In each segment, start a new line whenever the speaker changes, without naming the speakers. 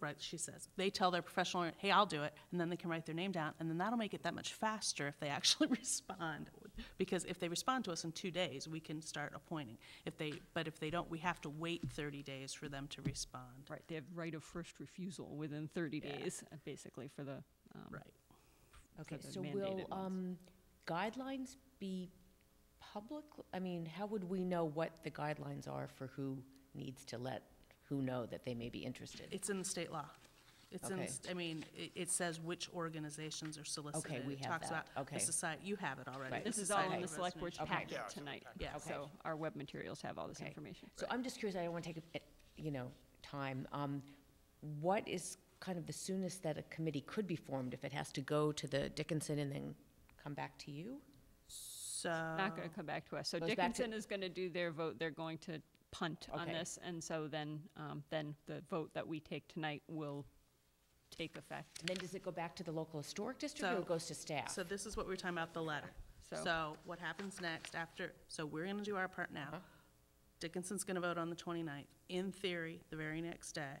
right, she says, they tell their professional, hey, I'll do it, and then they can write their name down, and then that'll make it that much faster if they actually respond. Because if they respond to us in two days, we can start appointing. If they, but if they don't, we have to wait thirty days for them to respond.
Right, they have right of first refusal within 30
Yeah.
days, uh, basically, for the, um,
Right.
for
Okay,
the
so will
mandated ones.
um, guidelines be public? I mean, how would we know what the guidelines are for who needs to let, who know that they may be interested?
It's in the state law. It's in, the
Okay.
st- I mean, it, it says which organizations are solicited.
we
It
have
talks
that.
about the
Okay.
society, you have it already.
Right.
This is all in
Society
the
of
select board's
Residential-
Okay.
packet tonight,
Yeah. Okay.
so our web materials have all this
Okay.
information.
So I'm just curious, I don't want to take, up, eh, you know, time. Um, What is kind of the soonest that a committee could be formed if it has to go to the Dickinson and then come back to you?
So.
Not gonna come back to us, so
Goes back to-
Dickinson is gonna do their vote, they're going to punt on
Okay.
this, and so then, um, then the vote that we take tonight will take effect.
And then does it go back to the local historic district or
So-
it goes to staff?
So this is what we were talking about, the letter.
So-
So what happens next after, so we're gonna do our part
Uh-huh.
now. Dickinson's gonna vote on the 29th. In theory, the very next day,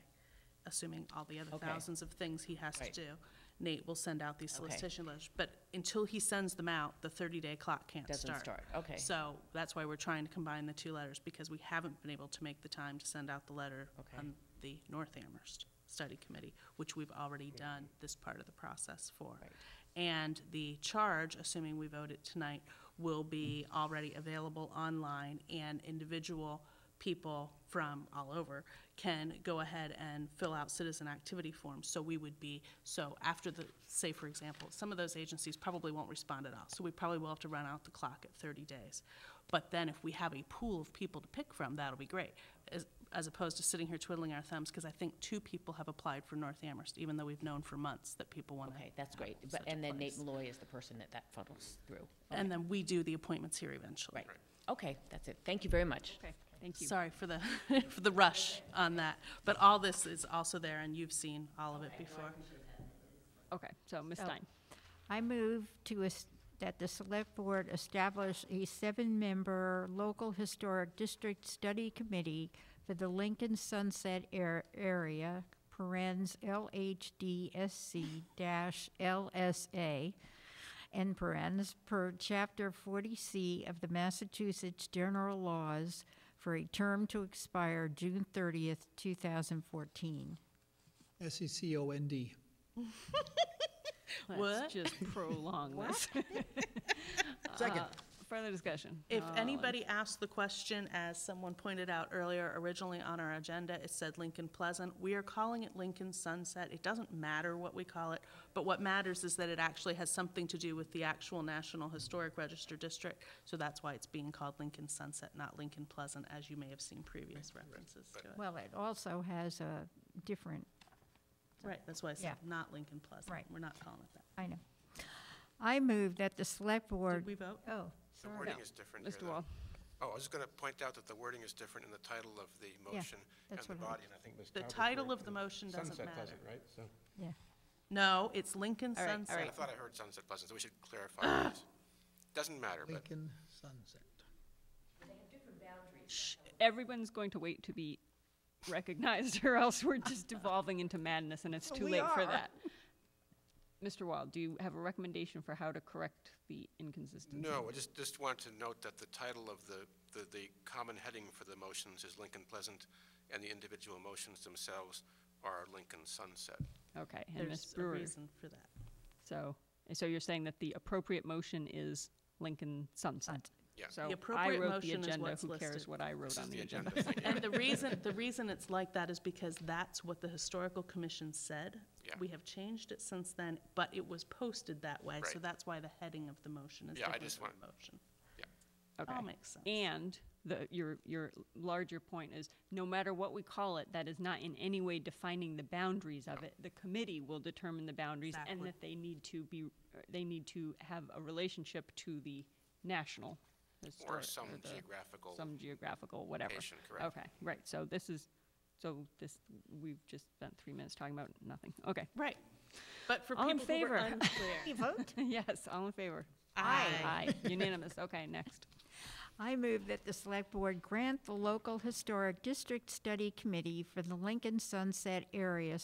assuming all the other
Okay.
thousands of things he has to
Right.
do, Nate will send out these
Okay.
solicitation letters. But until he sends them out, the 30-day clock can't
Doesn't
start.
start, okay.
So that's why we're trying to combine the two letters, because we haven't been able to make the time to send out the letter
Okay.
on the North Amherst Study Committee, which we've already done this part of the process for.
Right.
And the charge, assuming we vote it tonight, will be already available online, and individual people from all over can go ahead and fill out citizen activity forms. So we would be, so after the, say, for example, some of those agencies probably won't respond at all, so we probably will have to run out the clock at 30 days. But then if we have a pool of people to pick from, that'll be great, as, as opposed to sitting here twiddling our thumbs, because I think two people have applied for North Amherst, even though we've known for months that people want to.
Okay, that's great. But, and then Nate Malloy is the person that that funnels through.
And then we do the appointments here eventually.
Right. Okay, that's it. Thank you very much.
Okay, thank you.
Sorry for the, for the rush on that, but all this is also there, and you've seen all of it before.
Okay, so Ms.
So-
Stein,
I move to, es- that the Select Board establish a seven-member local historic district study committee for the Lincoln Sunset Air- Area, parens LHDSC dash LSA, and parens, per Chapter 40C of the Massachusetts General Laws for a term to expire June 30th, 2014.
S E C O N D.
What?
let's just prolong this.
Second.
Uh, Further discussion. Uh,
If
All in-
anybody asked the question, as someone pointed out earlier, originally on our agenda, it said Lincoln Pleasant. We are calling it Lincoln Sunset. It doesn't matter what we call it, but what matters is that it actually has something to do with the actual National Historic Register District, so that's why it's being called Lincoln Sunset, not Lincoln Pleasant, as you may have seen previous references to it.
Well, it also has a different
Right, that's why I said
Yeah.
not Lincoln Pleasant.
Right.
We're not calling it that.
I know. I move that the select
Did we
board,
vote?
oh,
The
sorry.
wording
No.
is different here.
Mr.
though.
Wall,
Oh, I was just going to point out that the wording is different in the title of the motion and
that's
the
what I-
body, and I think Ms.
The
Tauber's
title
right.
of the motion doesn't
Sunset
matter.
Pleasant, right? So,
Yeah,
No, it's Lincoln
All right, all
Sunset.
right.
I thought I heard Sunset Pleasant, so we should clarify this. Doesn't matter, but
Lincoln Sunset.
everyone's going to wait to be recognized, or else we're just devolving into madness, and it's too late for that. Mr. Wall, do you have a recommendation for how to correct the inconsistency?
no, I just, just want to note that the title of the, the, the common heading for the motions is Lincoln Pleasant, and the individual motions themselves are Lincoln Sunset.
Okay, and Ms.
There's a
Brewer,
reason for that.
so, and so you're saying that the appropriate motion is Lincoln Sunset?
Yeah. The
So I
appropriate
wrote the
motion is
agenda,
what's
who
listed.
cares what I wrote
This is
on the
the
agenda?
agenda. Thank you.
And the reason, the reason it's like that is because that's what the historical commission said.
Yeah.
We have changed it since then, but it was posted that way, so
Right.
that's why the heading of the motion is
Yeah, I
different
just
from
want-
the motion.
Yeah.
Okay.
All makes sense.
And the, your, your larger point is, no matter what we call it, that is not in any way defining the boundaries of it. The committee will determine the boundaries and
Exactly.
that they need to be, uh, they need to have a relationship to the national historic.
Or some
the-
geographical,
Some geographical, whatever.
location, correct.
Okay, right, so this is, so this, we've just spent three minutes talking about nothing, okay.
Right. But for
All in
people who were
favor.
unclear.
Yes, all in favor?
Aye.
Aye, unanimous, okay, next.
I move that the select board grant the local historic district study committee for the Lincoln Sunset Area